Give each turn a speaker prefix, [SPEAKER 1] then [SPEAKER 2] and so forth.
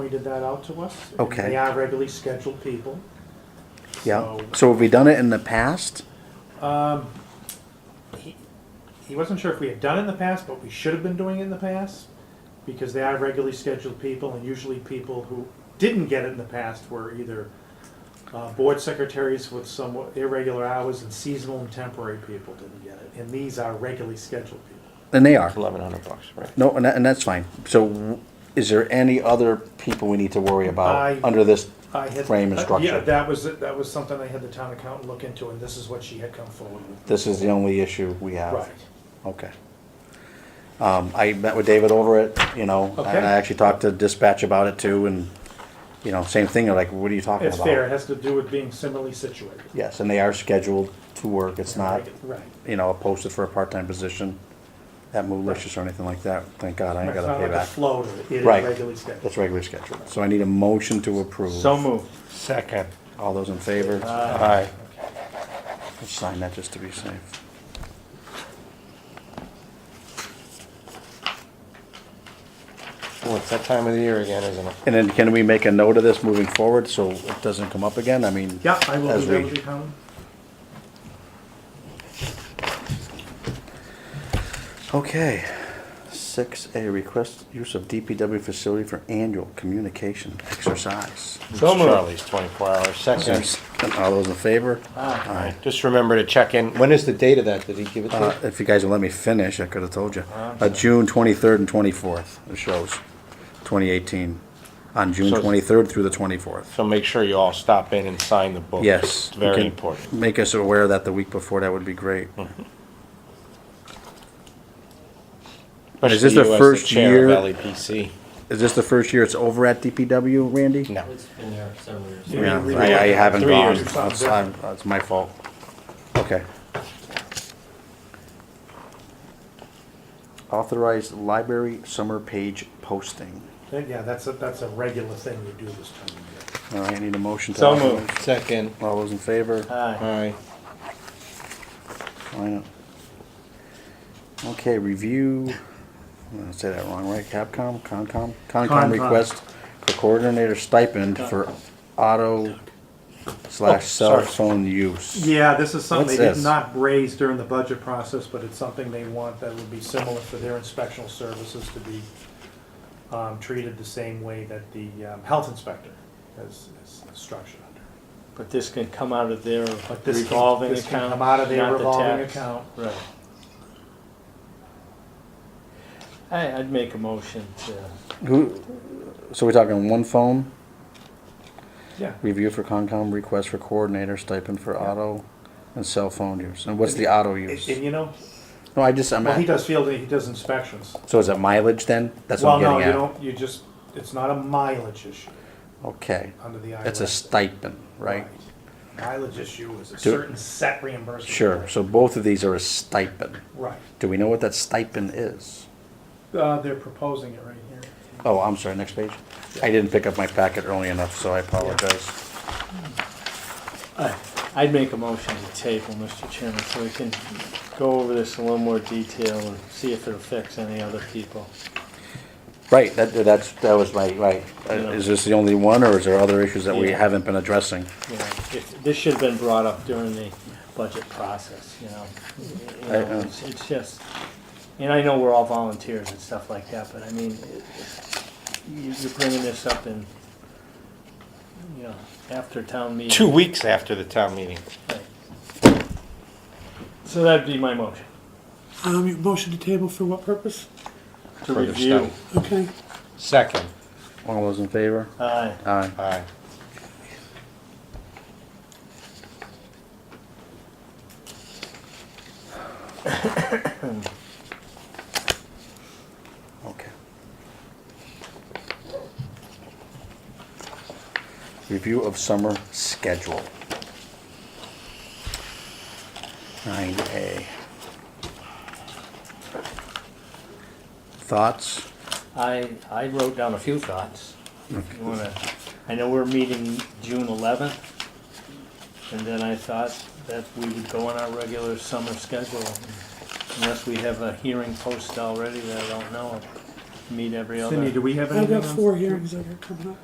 [SPEAKER 1] pointed that out to us. and
[SPEAKER 2] Okay.
[SPEAKER 1] They are regularly scheduled people.
[SPEAKER 2] Yeah,
[SPEAKER 1] So-
[SPEAKER 2] so have we done it in the past?
[SPEAKER 1] Um, he, he wasn't sure if we had done it in the past, but we should have been doing it in the past because they are regularly scheduled people, and usually people who didn't get it in the past were either uh, board secretaries with somewhat irregular hours and seasonal and temporary people didn't get it. And these are regularly scheduled people.
[SPEAKER 2] And they are.
[SPEAKER 3] Eleven hundred bucks, right?
[SPEAKER 2] No, and, that, and that's fine. So w- is there any other people we need to worry about
[SPEAKER 1] I-
[SPEAKER 2] under this?
[SPEAKER 1] I had,
[SPEAKER 2] Frame and
[SPEAKER 1] uh,
[SPEAKER 2] structure.
[SPEAKER 1] Yeah, that was that was something I had the town accountant look into, and this is what she had come forward with.
[SPEAKER 2] This is the only issue we have.
[SPEAKER 1] Right.
[SPEAKER 2] Okay. Um, I met with David over it, you know, and
[SPEAKER 1] Okay.
[SPEAKER 2] I actually talked to dispatch about it too, and, you know, same thing, they're like, what are you talking
[SPEAKER 1] It's
[SPEAKER 2] about?
[SPEAKER 1] fair. It has to do with being similarly situated.
[SPEAKER 2] Yes, and they are scheduled to work. It's not,
[SPEAKER 1] right.
[SPEAKER 2] you know, posted for a part-time position at Moolish's or anything like that. Thank God I ain't
[SPEAKER 1] It's
[SPEAKER 2] gotta
[SPEAKER 1] not
[SPEAKER 2] pay
[SPEAKER 1] like a
[SPEAKER 2] back.
[SPEAKER 1] floater, it is
[SPEAKER 2] Right.
[SPEAKER 1] regularly scheduled.
[SPEAKER 2] That's regular scheduled. So I need a motion to approve.
[SPEAKER 3] So Uh, moved. Second.
[SPEAKER 2] All those in favor?
[SPEAKER 3] Aye.
[SPEAKER 2] Let's Sign that just to be safe.
[SPEAKER 3] Well, it's that time of the year again, isn't it?
[SPEAKER 2] And then can we make a note of this moving forward so it doesn't come up again? I mean.
[SPEAKER 1] Yeah, I will
[SPEAKER 2] as
[SPEAKER 1] do that
[SPEAKER 2] we-
[SPEAKER 1] with you, Colin.
[SPEAKER 2] Okay. Six A, request use of DPW facility for annual communication exercise.
[SPEAKER 3] So moved. Charlie's twenty-four hours, second.
[SPEAKER 2] All those in favor? Aye.
[SPEAKER 3] Just remember to check in. When is the date of that? Did he give it to
[SPEAKER 2] Uh,
[SPEAKER 3] you?
[SPEAKER 2] if you guys would let me finish, I could have told you. Uh, June twenty-third and twenty-fourth, it shows, twenty eighteen, on June
[SPEAKER 3] So-
[SPEAKER 2] twenty-third through the twenty-fourth.
[SPEAKER 3] So make sure you all stop in and sign the book.
[SPEAKER 2] Yes.
[SPEAKER 3] It's
[SPEAKER 2] you
[SPEAKER 3] very
[SPEAKER 2] can
[SPEAKER 3] important. Mm-hmm.
[SPEAKER 2] Make us aware that the week before, that would be great. Is this
[SPEAKER 3] Especially
[SPEAKER 2] the
[SPEAKER 3] you as
[SPEAKER 2] first
[SPEAKER 3] chair
[SPEAKER 2] year-
[SPEAKER 3] of E LEPC.
[SPEAKER 2] Is this the first year it's over at DPW, Randy?
[SPEAKER 3] No.
[SPEAKER 4] It's been there several years.
[SPEAKER 1] Yeah.
[SPEAKER 2] Yeah,
[SPEAKER 1] we-
[SPEAKER 2] I, I haven't
[SPEAKER 3] Three
[SPEAKER 2] gone.
[SPEAKER 3] years.
[SPEAKER 2] That's, I'm- that's my fault. Okay. Authorized library summer page posting.
[SPEAKER 1] That- Yeah, that's a, that's a regular thing you do this time of
[SPEAKER 2] All right, I need a motion to.
[SPEAKER 3] So
[SPEAKER 2] authorize.
[SPEAKER 3] moved. Second.
[SPEAKER 2] All those in favor?
[SPEAKER 3] Aye.
[SPEAKER 2] Why not? Okay, review, I'm gonna say that wrong, right? Capcom, Concom? Concom
[SPEAKER 1] Concom.
[SPEAKER 2] request for coordinator stipend for auto slash cell
[SPEAKER 3] sorry.
[SPEAKER 2] phone use.
[SPEAKER 1] year. Oh, Yeah, this is something
[SPEAKER 2] What's
[SPEAKER 1] they did
[SPEAKER 2] this?
[SPEAKER 1] not raise during the budget process, but it's something they want that would be similar for their inspectional services to be um, treated the same way that the um, health inspector is, is structured under.
[SPEAKER 5] But this can come out of their
[SPEAKER 1] But this can,
[SPEAKER 5] revolving
[SPEAKER 1] this can
[SPEAKER 5] account,
[SPEAKER 1] come out
[SPEAKER 5] not
[SPEAKER 1] of their
[SPEAKER 5] the
[SPEAKER 1] revolving
[SPEAKER 5] tax.
[SPEAKER 1] account.
[SPEAKER 5] Right. I, I'd make a motion to,
[SPEAKER 2] Who, so we're talking one phone,
[SPEAKER 1] Yeah.
[SPEAKER 2] review for Concom, request for coordinator stipend for auto and cell phone use. And what's the auto use?
[SPEAKER 1] And and you know,
[SPEAKER 2] No, I just, I'm,
[SPEAKER 1] well, he
[SPEAKER 2] at-
[SPEAKER 1] does field, he does inspections.
[SPEAKER 2] so is it mileage then? That's what
[SPEAKER 1] Well, no,
[SPEAKER 2] I'm getting
[SPEAKER 1] you
[SPEAKER 2] at.
[SPEAKER 1] don't, you just, it's not a mileage issue
[SPEAKER 2] Okay,
[SPEAKER 1] under the IRS.
[SPEAKER 2] it's a stipend, right?
[SPEAKER 1] Mileage issue is a certain set reimbursement.
[SPEAKER 2] Sure,
[SPEAKER 1] rate.
[SPEAKER 2] so both of these are a stipend.
[SPEAKER 1] Right.
[SPEAKER 2] Do we know what that stipend is?
[SPEAKER 1] Uh, they're proposing it right here.
[SPEAKER 2] Oh, I'm sorry, next page. I didn't pick up my packet early enough, so I apologize.
[SPEAKER 5] I- I'd make a motion to table, Mr. Chairman, so we can go over this in a little more detail and see if it affects any other people.
[SPEAKER 2] Right, that, that's, that was my, right. Uh,
[SPEAKER 5] Yeah.
[SPEAKER 2] Is this the only one, or is there other issues that we
[SPEAKER 5] Yeah.
[SPEAKER 2] haven't been addressing?
[SPEAKER 5] You know, if, this should have been brought up during the budget process, you know. You
[SPEAKER 2] I-
[SPEAKER 5] know,
[SPEAKER 2] uh,
[SPEAKER 5] it's- It's just, and I know we're all volunteers and stuff like that, but I mean, it- it- you- you're bringing this up in, you know, after town meeting.
[SPEAKER 3] Two weeks after the town meeting.
[SPEAKER 5] Right. So that'd be my motion,
[SPEAKER 6] Um, you motion to table for what purpose?
[SPEAKER 5] to
[SPEAKER 3] Further
[SPEAKER 5] review.
[SPEAKER 3] study.
[SPEAKER 6] Okay,
[SPEAKER 3] Second.
[SPEAKER 2] All those in favor?
[SPEAKER 5] Aye.
[SPEAKER 2] Aye.
[SPEAKER 3] Aye.
[SPEAKER 2] Okay. Review of summer schedule. Nine A. Thoughts?
[SPEAKER 5] I, I wrote down a few thoughts. If you wanna, I know we're meeting June eleventh, and then I thought that we would go on our regular summer schedule, unless we have a hearing posted already that I don't know of. meet every other.
[SPEAKER 1] Cindy, do we have anything
[SPEAKER 6] I've
[SPEAKER 1] on?
[SPEAKER 6] got four hearings that are coming up.